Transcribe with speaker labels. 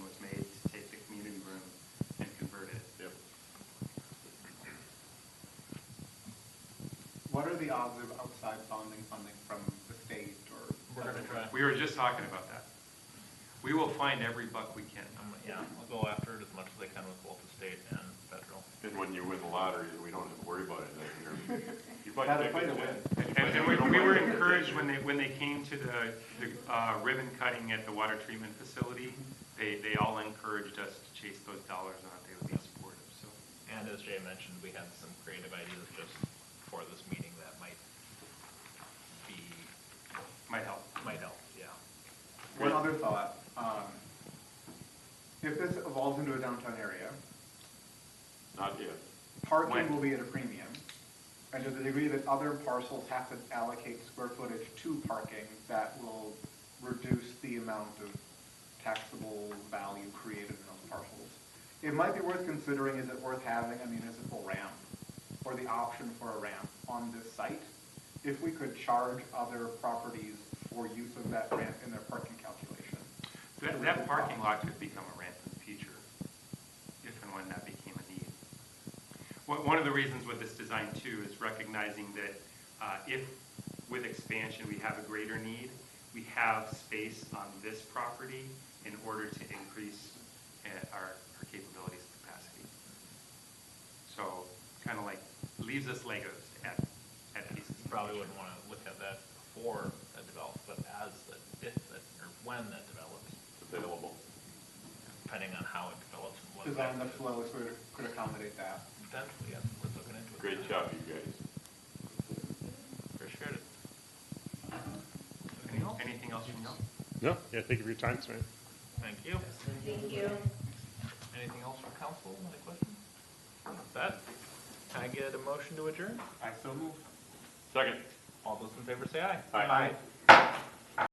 Speaker 1: what are the odds of outside funding, funding from the state or?
Speaker 2: We're gonna try.
Speaker 3: We were just talking about that. We will find every buck we can.
Speaker 2: I'm, um, yeah, I'll go after it as much as I can with both the state and federal.
Speaker 4: And when you win the lottery, we don't have to worry about it that year. You might
Speaker 1: Gotta
Speaker 4: think
Speaker 1: find
Speaker 4: it's
Speaker 1: a way.
Speaker 4: bad.
Speaker 3: And, and we, we were encouraged when they, when they came to the, the, uh, ribbon cutting at the water treatment facility, they, they all encouraged us to chase those dollars and that they would be supportive, so.
Speaker 2: And as Jay mentioned, we had some creative ideas just for this meeting that might be,
Speaker 3: Might help.
Speaker 2: might help, yeah.
Speaker 1: One other thought, um, if this evolves into a downtown area,
Speaker 4: Not yet.
Speaker 1: parking
Speaker 3: When?
Speaker 1: will be at a premium. And to the degree that other parcels have to allocate square footage to parking, that will reduce the amount of taxable value created in those parcels. It might be worth considering, is it worth having a municipal ramp or the option for a ramp on this site? If we could charge other properties for use of that ramp in their parking calculation.
Speaker 3: That, that parking lot could become a ramp in the future, if and when that became a need. One, one of the reasons with this design too is recognizing that, uh, if with expansion, we have a greater need, we have space on this property in order to increase uh, our, our capabilities and capacity. So, kind of like, leaves us Legos at, at pieces. in the
Speaker 2: You probably
Speaker 3: future.
Speaker 2: wouldn't want to look at that before that develops, but as that, if that, or when that develops,
Speaker 4: It's available.
Speaker 2: depending on how it develops and what.
Speaker 1: Design the
Speaker 2: that is.
Speaker 1: flow so it could accommodate that.
Speaker 2: Potentially, yes, let's look into it.
Speaker 4: Great job, you guys.
Speaker 2: For sure.
Speaker 3: Any- Anything else from you?
Speaker 5: No, yeah, thank you for your time tonight.
Speaker 2: Thank you.
Speaker 6: Thank you.
Speaker 2: Anything else from council, any questions? With That, can I get a motion to adjourn?
Speaker 3: I so move.
Speaker 4: Second.
Speaker 2: All those in favor say aye.
Speaker 4: Aye. Aye.